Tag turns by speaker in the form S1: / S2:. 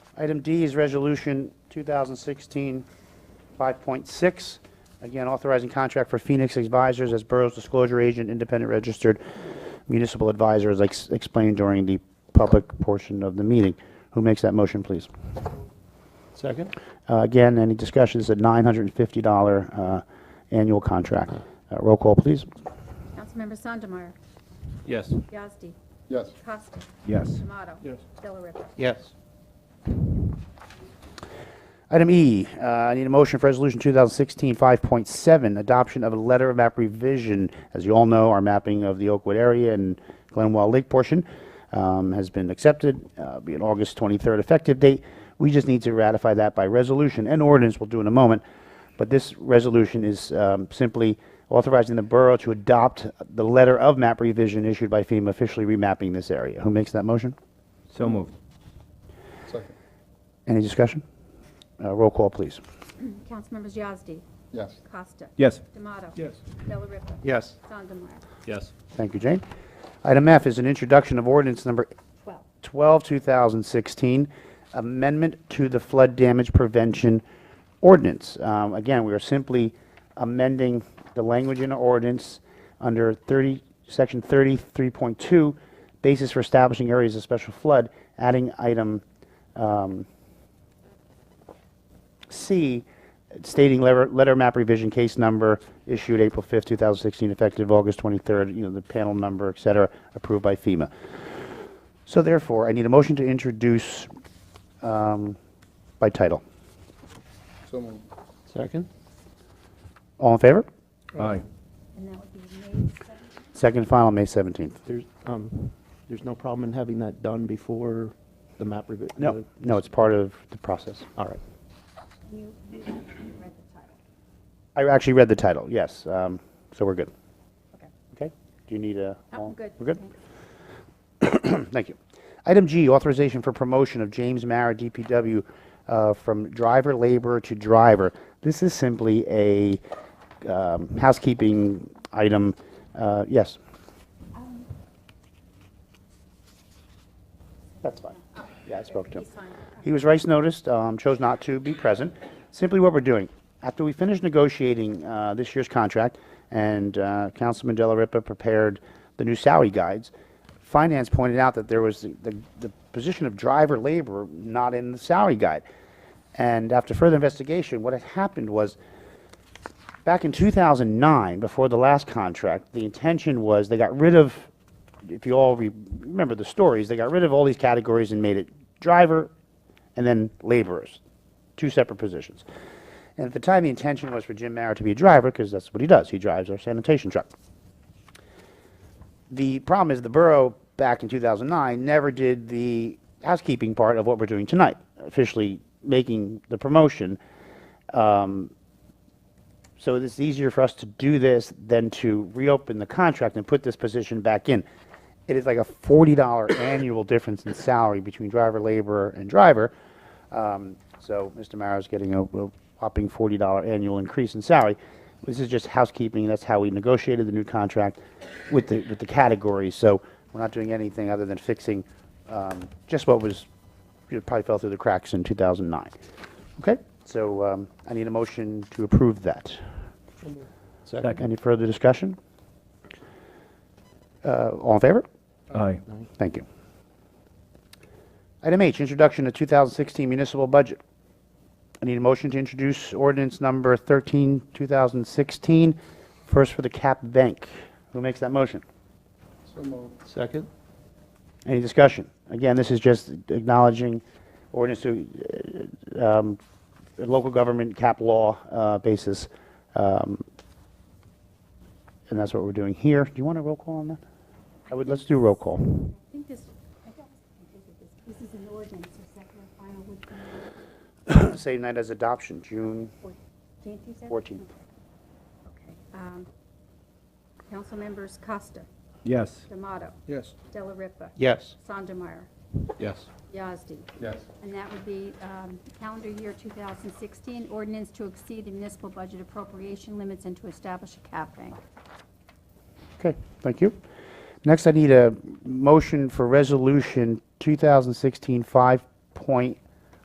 S1: Item D is Resolution 2016 5.6, again authorizing contract for Phoenix Advisors as Borough's disclosure agent, independent registered municipal advisor, as ex- explained during the public portion of the meeting. Who makes that motion, please?
S2: Second?
S1: Uh, Again, any discussion, this is a $950 uh, annual contract. Uh, Roll call, please.
S3: Councilmember Sandemeyer.
S2: Yes.
S3: Yazdi.
S4: yes,
S3: Costa.
S1: Yes.
S3: Tomato.
S2: Yes.
S3: Delariva.
S2: Yes.
S1: Item E, uh, I need a motion for Resolution 2016-5.7, adoption of a letter of map revision. As you all know, our mapping of the Oakwood area and Glenwell Lake portion um, has been accepted, uh, be an August 23rd effective date. We just need to ratify that by resolution and ordinance, we'll do in a moment. But this resolution is um, simply authorizing the borough to adopt the letter of map revision issued by FEMA officially remapping this area. Who makes that motion?
S5: So moved.
S4: second,
S1: Any discussion? Uh, Roll call, please.
S3: Councilmembers Yazdi.
S4: yes,
S3: Costa.
S5: Yes.
S3: Tomato.
S2: Yes.
S3: Delariva.
S2: Yes.
S3: Sandemeyer.
S2: Yes.
S1: Thank you, Jane. Item F is an introduction of ordinance number
S3: 12.
S1: 12, 2016, amendment to the flood damage prevention ordinance. Um, Again, we are simply amending the language in the ordinance under 30, section 33.2, basis for establishing areas of special flood, adding item um, C, stating letter, letter map revision case number issued April 5th, 2016, effective August 23rd, you know, the panel number, et cetera, approved by FEMA. So therefore, I need a motion to introduce um, by title.
S4: so moved,
S2: Second?
S1: All in favor?
S5: Aye.
S3: And that would be May 17th.
S1: Second and final, May 17th.
S2: There's, um, there's no problem in having that done before the map revi-
S1: No,
S2: the-
S1: no, it's part of the process.
S2: All right.
S3: You you read the title.
S1: I actually read the title, yes, um, so we're good.
S3: Okay.
S1: Okay? Do you need a?
S3: Oh, I'm good.
S1: We're good?
S3: Thanks.
S1: Thank you. Item G, authorization for promotion of James Mara, DPW, uh, from driver laborer to driver. This is simply a um, housekeeping item. Uh, Yes?
S3: Um,
S1: That's fine. Yeah, I spoke to him.
S3: He's fine.
S1: He was rice noticed, um, chose not to be present. Simply what we're doing, after we finish negotiating uh, this year's contract, and uh, Councilman Della Ripa prepared the new salary guides, Finance pointed out that there was the- the the position of driver laborer not in the salary guide. And after further investigation, what had happened was, back in 2009, before the last contract, the intention was they got rid of, if you all re- remember the stories, they got rid of all these categories and made it driver and then laborers, two separate positions. And at the time, the intention was for Jim Mara to be a driver because that's what he does. He drives our sanitation truck. The problem is the borough back in 2009 never did the housekeeping part of what we're doing tonight, officially making the promotion. So it's easier for us to do this than to reopen the contract and put this position back in. It is like a $40 annual difference in salary between driver, laborer, and driver. Um, So Mr. Mara's getting a a whopping $40 annual increase in salary. This is just housekeeping, that's how we negotiated the new contract with the, with the categories. So we're not doing anything other than fixing um, just what was, it probably fell through the cracks in 2009. Okay, so um, I need a motion to approve that.
S2: Second?
S1: Any further discussion? Uh, All in favor?
S5: Aye.
S1: Thank you. Item H, introduction to 2016 municipal budget. I need a motion to introduce ordinance number 13, 2016, first for the Cap Bank. Who makes that motion?
S4: so moved,
S2: Second?
S1: Any discussion? Again, this is just acknowledging ordinance to, uh, um, local government cap law, uh, basis. um, And that's what we're doing here. Do you want a roll call on that? I would, let's do roll call.
S3: I think this, I thought I think it is- this is an ordinance, so second and final would be
S1: Same night as adoption, June
S3: 14th, you said?
S1: 14th.
S3: Okay. Um, Councilmembers Costa.
S5: Yes.
S3: D'Amato.
S4: yes,
S3: Delariva.
S2: Yes.
S3: Sandemeyer.
S2: Yes.
S3: Yazdi.
S4: yes,
S3: And that would be um, calendar year 2016, ordinance to exceed the municipal budget appropriation limits and to establish a cap bank.
S1: Okay, thank you. Next, I need a motion for resolution 2016 5.8,